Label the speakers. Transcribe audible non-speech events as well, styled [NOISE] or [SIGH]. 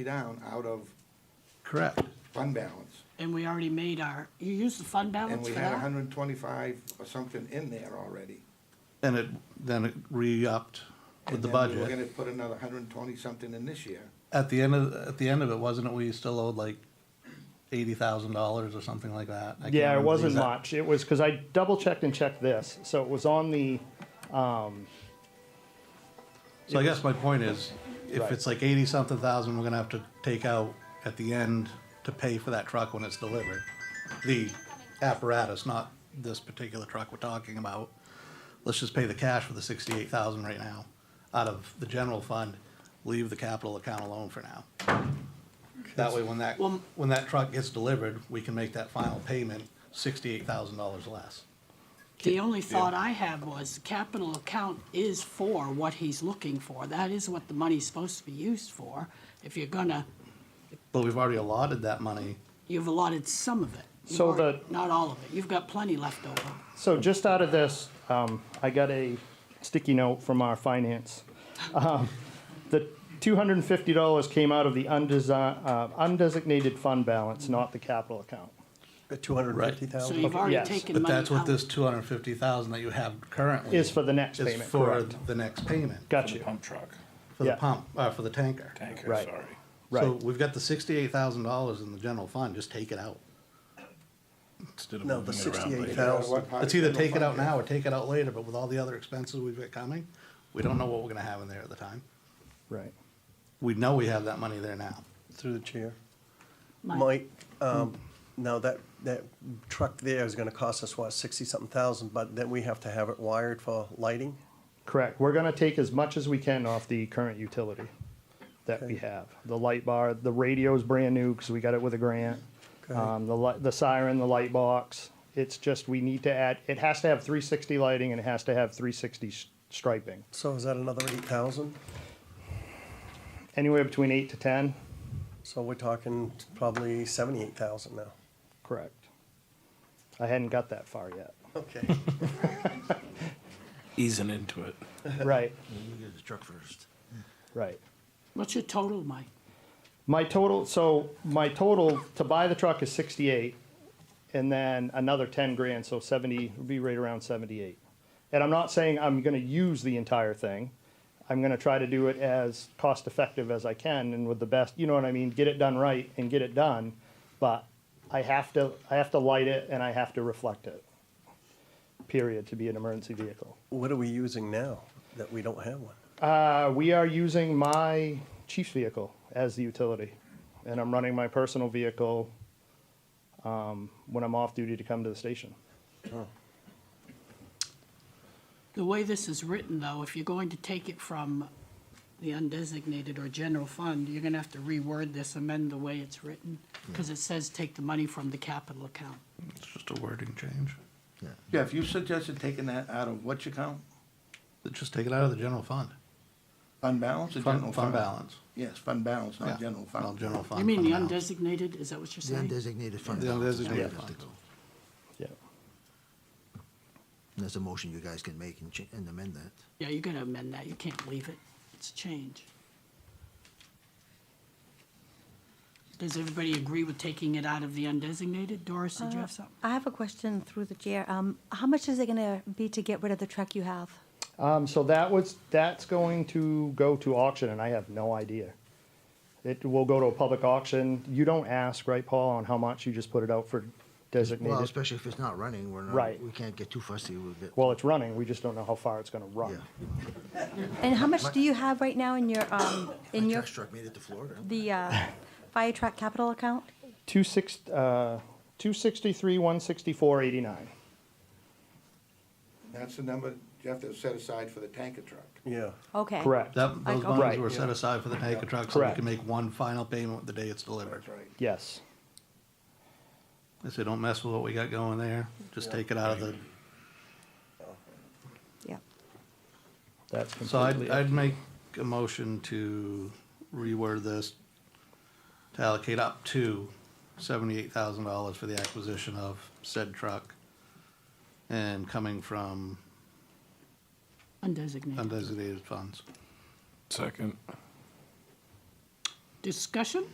Speaker 1: down out of
Speaker 2: Correct.
Speaker 1: fund balance.
Speaker 3: And we already made our, you used the fund
Speaker 1: And
Speaker 3: balance
Speaker 1: we
Speaker 3: for
Speaker 1: had
Speaker 3: that?
Speaker 1: hundred and twenty-five or something in there already.
Speaker 2: And it, then it re-upped with
Speaker 1: And
Speaker 2: the
Speaker 1: then We were
Speaker 2: budget.
Speaker 1: gonna put another hundred and twenty something in this year.
Speaker 2: At the end of, at the end of it, wasn't it, we still owed like eighty thousand dollars or something like that? I can't
Speaker 4: Yeah, it
Speaker 2: remember the
Speaker 4: wasn't
Speaker 2: exact-
Speaker 4: much. It was, because I double checked and checked this, so it was on the,
Speaker 2: So I guess my point is, if
Speaker 4: Right.
Speaker 2: it's like eighty-something thousand, we're gonna have to take out at the end to pay for that truck when it's delivered. The apparatus, not this particular truck we're talking about. Let's just pay the cash for the sixty-eight thousand right now, out of the general fund, leave the capital account alone for now. That way, when that,
Speaker 3: Well-
Speaker 2: when that truck gets delivered, we can make that final payment sixty-eight thousand dollars less.
Speaker 3: The only thought I have was, the capital account is for what he's looking for. That is what the money's supposed to be used for. If you're gonna,
Speaker 2: But we've already allotted that money,
Speaker 3: you've allotted some of it. You've
Speaker 4: So
Speaker 3: already-
Speaker 4: the-
Speaker 3: Not all of it. You've got plenty left over.
Speaker 4: so just out of this, um, I got a sticky note from our finance. Um, The two hundred and fifty dollars came out of the undesi- uh, undesignated fund balance, not the capital account.
Speaker 5: Two hundred and fifty
Speaker 3: So
Speaker 5: thousand?
Speaker 3: you've already
Speaker 4: yes.
Speaker 3: taken
Speaker 2: but
Speaker 3: money
Speaker 2: that's what
Speaker 3: out.
Speaker 2: this two hundred and fifty thousand that you have currently.
Speaker 4: Is for the next
Speaker 2: is
Speaker 4: payment,
Speaker 2: for
Speaker 4: correct.
Speaker 2: the next payment
Speaker 4: Got you,
Speaker 5: Pump truck,
Speaker 2: for the
Speaker 4: Yeah.
Speaker 2: pump uh, for the tanker.
Speaker 5: tanker,
Speaker 4: Right.
Speaker 5: sorry.
Speaker 2: So
Speaker 4: right.
Speaker 2: we've got the sixty-eight thousand dollars in the general fund. Just take it out.
Speaker 5: Instead of
Speaker 6: No, the
Speaker 5: moving it around
Speaker 6: sixty-eight
Speaker 5: later.
Speaker 1: What
Speaker 6: thousand,
Speaker 1: part
Speaker 2: It's
Speaker 1: of
Speaker 2: either
Speaker 1: general
Speaker 2: take it out
Speaker 1: fund
Speaker 2: now or take it out later. But with all the other expenses we've got coming, we don't know what we're going to have in there at the time.
Speaker 4: Right.
Speaker 2: We know we have that money there now.
Speaker 6: through the chair.
Speaker 3: Mike.
Speaker 6: Mike, um, now that, that truck there is gonna cost us, what, sixty-something thousand, but then we have to have it wired for lighting?
Speaker 4: Correct. We're gonna take as much as we can off the current utility that we have. The light bar, the radio's brand new, cause we got it with a grant.
Speaker 6: Okay.
Speaker 4: Um, the li- the siren, the light box, it's just, we need to add, it has to have three sixty lighting and it has to have three sixty striping.
Speaker 6: So is that another eight thousand?
Speaker 4: Anywhere between eight to ten?
Speaker 6: So we're talking probably seventy-eight thousand now.
Speaker 4: Correct. I hadn't got that far
Speaker 5: [LAUGHS]
Speaker 4: yet.
Speaker 6: Okay.
Speaker 5: Easing into it.
Speaker 4: Right,
Speaker 5: Get the truck first.
Speaker 4: right.
Speaker 3: What's your total, Mike?
Speaker 4: My total, so my total to buy the truck is sixty-eight, and then another ten grand, so seventy, would be right around seventy-eight. And I'm not saying I'm gonna use the entire thing. I'm gonna try to do it as cost-effective as I can and with the best, you know what I mean, get it done right and get it done. But I have to, I have to light it and I have to reflect it, period, to be an emergency vehicle.
Speaker 6: What are we using now that we don't have one?
Speaker 4: Uh, we are using my chief's vehicle as the utility, and I'm running my personal vehicle um, when I'm off duty to come to the station.
Speaker 3: The way this is written, though, if you're going to take it from the undesignated or general fund, you're gonna have to reword this, amend the way it's written, because it says take the money from the capital account.
Speaker 2: It's just a wording change.
Speaker 1: Yeah, if you suggested taking that out of which account?
Speaker 2: Just take it out of the general fund.
Speaker 1: Fund balance or general fund?
Speaker 2: Fund, fund balance.
Speaker 1: Yes, fund balance,
Speaker 2: Yeah.
Speaker 1: not general fund.
Speaker 2: Not general fund.
Speaker 3: You mean
Speaker 2: fund
Speaker 3: the
Speaker 2: balance.
Speaker 3: undesignated, is that what you're
Speaker 7: The
Speaker 3: saying?
Speaker 7: undesignated fund.
Speaker 2: The
Speaker 7: balance is where
Speaker 2: undesignated
Speaker 7: it has to
Speaker 2: fund.
Speaker 7: go.
Speaker 4: Yeah.
Speaker 7: And That's a motion you guys can make and ch- and amend that.
Speaker 3: Yeah, you're gonna amend that, you can't leave it, it's a change. Does everybody agree with taking it out of the undesignated? Doris,
Speaker 8: Uh-huh.
Speaker 3: did you have something?
Speaker 8: Uh, I have a question through the chair. Um, how much is it gonna be to get rid of the truck you have?
Speaker 4: Um, so that was that's going to go to auction, and I have no idea. It will go to a public auction. You don't ask, right, Paul, on how much. You just put it out for designated.
Speaker 7: Well, especially if it's not running, we're not,
Speaker 4: Right.
Speaker 7: we can't get too fussy with it.
Speaker 4: Well, it's running. We just don't know how far it's going to run.
Speaker 7: Yeah.
Speaker 8: And how much do you have right now in your, um, in
Speaker 7: My
Speaker 8: your,
Speaker 7: tax truck made it to Florida.
Speaker 8: the, uh, fire truck capital account?
Speaker 4: Two six, uh, two sixty-three, one sixty-four, eighty-nine.
Speaker 1: That's the number you have to set aside for the tanker truck.
Speaker 6: Yeah.
Speaker 8: Okay.
Speaker 4: Correct.
Speaker 2: That, those
Speaker 8: Like,
Speaker 2: bonds
Speaker 4: Right.
Speaker 2: were set aside for the tanker truck so we
Speaker 4: Correct.
Speaker 2: can make one final payment the day it's delivered.
Speaker 1: That's right.
Speaker 4: Yes.
Speaker 2: I say, don't mess with what we got going there. Just take it out of the
Speaker 8: Yeah.
Speaker 4: That's
Speaker 2: So I'd,
Speaker 4: completely.
Speaker 2: I'd make a motion to reword this to allocate up to seventy-eight thousand dollars for the acquisition of said truck. And coming from
Speaker 3: Undesignated.
Speaker 2: undesignated funds.
Speaker 5: Second.
Speaker 3: Discussion?